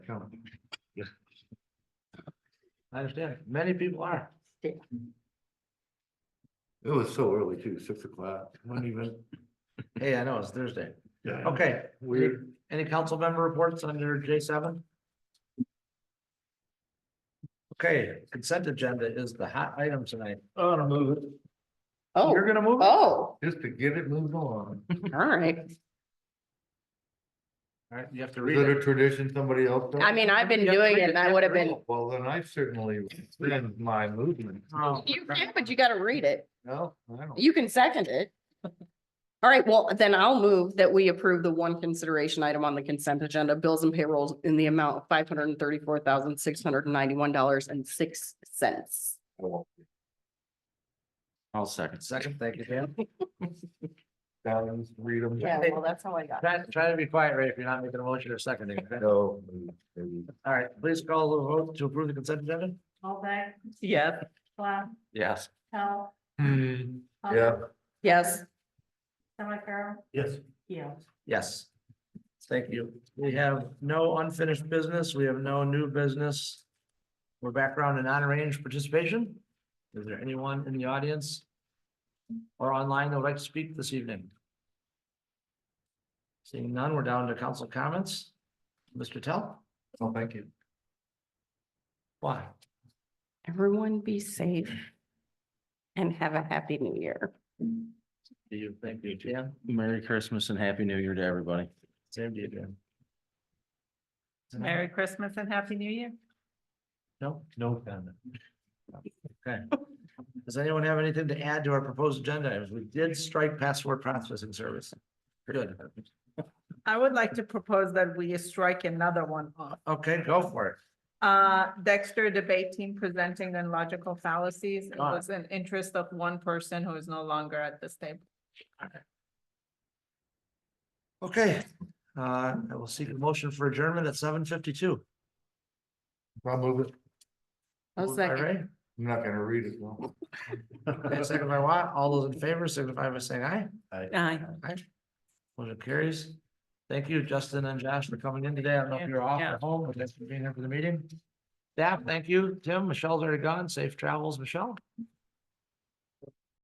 coming. I understand, many people are. Yeah. It was so early too, six o'clock, not even. Hey, I know, it's Thursday. Yeah. Okay, we, Weird. any council member reports under J seven? Okay, consent agenda is the hot item tonight. I'm gonna move it. Oh, You're gonna move? it? oh, Just to get it moved along. all right. All right, you have to Is read it it. a tradition somebody else? does? I mean, I've been You have to doing read it and I would have been, Oh, Well, then I certainly rescind my movement. Oh, you can, but you gotta read it. No, I don't. You can second it. All right, well, then I'll move that we approve the one consideration item on the consent agenda, bills and payrolls in the amount of five hundred and thirty-four thousand, six hundred and ninety-one dollars and six cents. I'll second. Second, thank you, Dan. Balance, read them. well, that's how I got. Try, try to be quiet, Ray, if you're not making a motion or seconding. okay? No. maybe. All right, please call the vote to approve the consent agenda. Holbeck, Yes. Cloud, Yes. Hell. Hmm, yeah. Yes, Summercrow, Yes. Keel. Yes. Thank you. We have no unfinished business. We have no new business. We're background and non-arranged participation. Is there anyone in the audience? Or online that would like to speak this evening? Seeing none, we're down to council comments. Mr. Tell, Oh, thank you. why? everyone be safe and have a happy new year. Do you think you can? Merry Christmas and Happy New Year to everybody. Same to you, Jim. Merry Christmas and Happy New Year. No, no comment. Okay. Does anyone have anything to add to our proposed agenda? items? We did strike password processing service. Good. I would like to propose that we strike another one off. Okay, go for it. Uh, Dexter debate team presenting on logical fallacies. It Ah. was an interest of one person who is no longer at this table. Okay, uh, I will seek a motion for adjournment at seven fifty-two. I'll move it. I'll second. I'm not gonna read it. no. Second by Watt, all those in favor signify by saying aye. Aye. Aye. Motion carries. Thank you, Justin and Josh, for coming in today. I don't know if you're off Yeah. at home, but thanks for being here for the meeting. Staff, thank you. Tim, Michelle's already gone. Safe travels, Michelle.